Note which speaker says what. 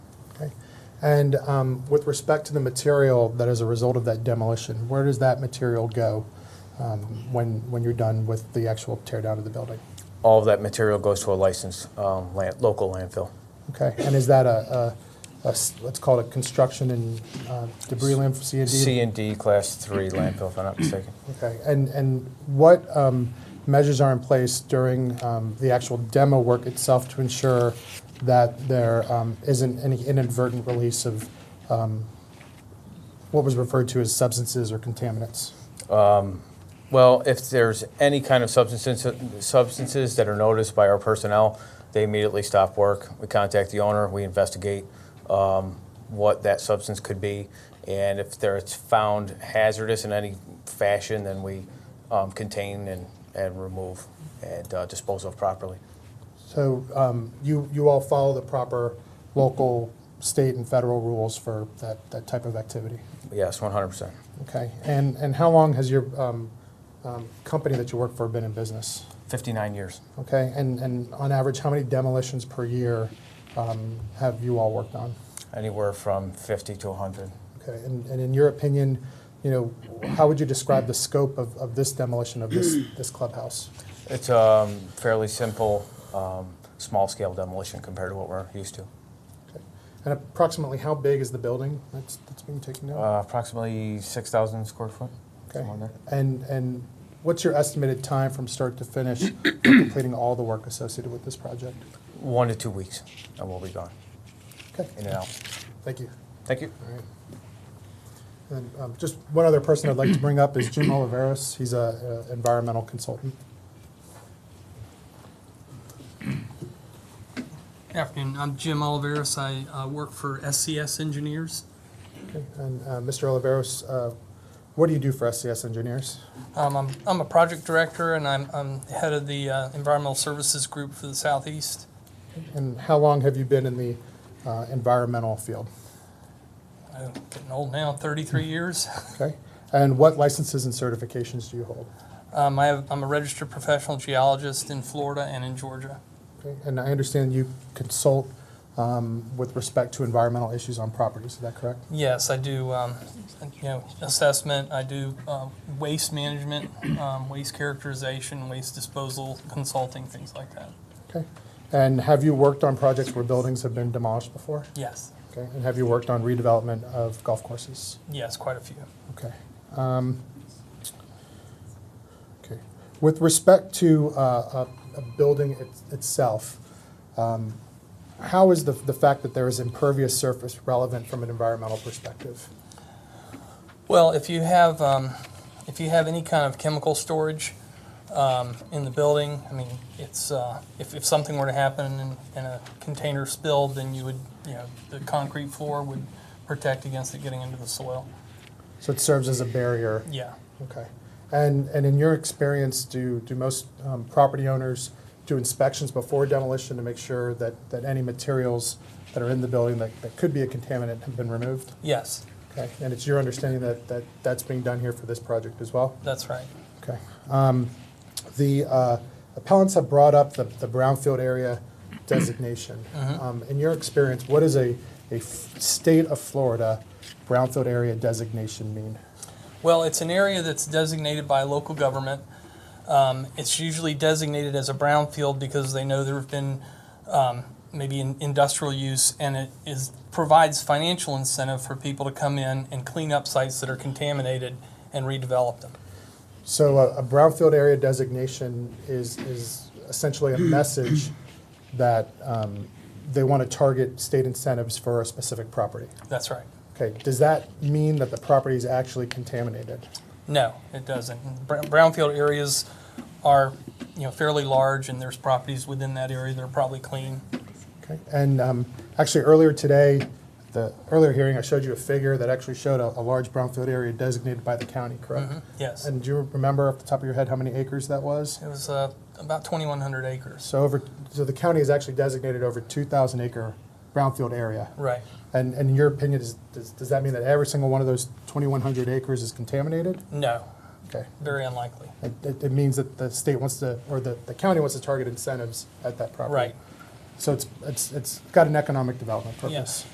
Speaker 1: Okay. And um, with respect to the material that is a result of that demolition, where does that material go um, when, when you're done with the actual tear down of the building?
Speaker 2: All of that material goes to a licensed um, land, local landfill.
Speaker 1: Okay, and is that a, a- a s- let's call it a construction and uh, debris land for CND?
Speaker 2: C and D Class 3 landfill, if I'm not mistaken.
Speaker 1: Okay, and, and what um, measures are in place during um, the actual demo work itself to ensure that there um, isn't any inadvertent release of um, what was referred to as substances or contaminants?
Speaker 2: Well, if there's any kind of substances, substances that are noticed by our personnel, they immediately stop work. We contact the owner, we investigate um, what that substance could be, and if there it's found hazardous in any fashion, then we um, contain and, and remove and uh, dispose of properly.
Speaker 1: So um, you, you all follow the proper local, state, and federal rules for that, that type of activity?
Speaker 2: Yes, 100%.
Speaker 1: Okay, and, and how long has your um, um, company that you work for been in business?
Speaker 2: 59 years.
Speaker 1: Okay, and, and on average, how many demolitions per year um, have you all worked on?
Speaker 2: Anywhere from 50 to 100.
Speaker 1: Okay, and, and in your opinion, you know, how would you describe the scope of, of this demolition of this, this clubhouse?
Speaker 2: It's a fairly simple, um, small-scale demolition compared to what we're used to.
Speaker 1: Okay. And approximately how big is the building that's, that's being taken down?
Speaker 2: Uh, approximately 6,000 square foot.
Speaker 1: okay.
Speaker 2: somewhere in there.
Speaker 1: And, and what's your estimated time from start to finish for completing all the work associated with this project?
Speaker 2: One to two weeks, and we'll be gone.
Speaker 1: Okay,
Speaker 2: In and out.
Speaker 1: thank you.
Speaker 2: Thank you.
Speaker 1: All right. And um, just one other person I'd like to bring up is Jim Oliveros. He's a, a environmental consultant.
Speaker 3: Afternoon, I'm Jim Oliveris. I uh, work for SCS Engineers.
Speaker 1: Okay. And uh, Mr. Oliveros, uh, what do you do for SCS engineers?
Speaker 3: Um, I'm, I'm a project director and I'm, I'm head of the uh, Environmental Services Group for the Southeast.
Speaker 1: And how long have you been in the uh, environmental field?
Speaker 3: I'm getting old now, 33 years.
Speaker 1: Okay. And what licenses and certifications do you hold?
Speaker 3: Um, I have, I'm a registered professional geologist in Florida and in Georgia.
Speaker 1: Okay. And I understand you consult um, with respect to environmental issues on properties. Is that correct?
Speaker 3: Yes, I do, um, you know, assessment, I do uh, waste management, um, waste characterization, waste disposal, consulting, things like that.
Speaker 1: Okay. And have you worked on projects where buildings have been demolished before?
Speaker 3: Yes,
Speaker 1: Okay, and have you worked on redevelopment of golf courses?
Speaker 3: yes, quite a few.
Speaker 1: Okay. Um, Okay. With respect to uh, a a building it- itself, um, how is the the fact that there is impervious surface relevant from an environmental perspective?
Speaker 3: Well, if you have, um, if you have any kind of chemical storage um, in the building, I mean, it's, uh, if, if something were to happen and, and a container spilled, then you would, you know, the concrete floor would protect against it getting into the soil.
Speaker 1: So it serves as a barrier?
Speaker 3: Yeah.
Speaker 1: Okay. And and in your experience, do do most um, property owners do inspections before demolition to make sure that that any materials that are in the building that that could be a contaminant have been removed?
Speaker 3: Yes,
Speaker 1: Okay, and it's your understanding that, that that's being done here for this project as well?
Speaker 3: that's right.
Speaker 1: Okay. Um, The uh, appellants have brought up the, the brownfield area designation. Um, In your experience, what does a, a f- state of Florida brownfield area designation mean?
Speaker 3: Well, it's an area that's designated by local government. Um, it's usually designated as a brownfield because they know there have been um, maybe in industrial use, and it is provides financial incentive for people to come in and clean up sites that are contaminated and redevelop them.
Speaker 1: So a, a brownfield area designation is, is essentially a message that um, they want to target state incentives for a specific property.
Speaker 3: That's right.
Speaker 1: Okay, does that mean that the property is actually contaminated?
Speaker 3: No, it doesn't. Br- Brownfield areas are you know fairly large, and there's properties within that area that are probably clean.
Speaker 1: Okay, and um, actually earlier today, the earlier hearing, I showed you a figure that actually showed a, a large brownfield area designated by the county, correct?
Speaker 3: Yes,
Speaker 1: And do you remember off the top of your head how many acres that was?
Speaker 3: it was uh, about 2,100 acres.
Speaker 1: So over, so the county has actually designated over 2,000 acre brownfield area.
Speaker 3: Right.
Speaker 1: And, and in your opinion, does, does, does that mean that every single one of those 2,100 acres is contaminated?
Speaker 3: No,
Speaker 1: Okay,
Speaker 3: very unlikely.
Speaker 1: it, it, it means that the state wants to, or the, the county wants to target incentives at that property.
Speaker 3: Right.
Speaker 1: So it's, it's, it's got an economic development purpose.
Speaker 3: Yes.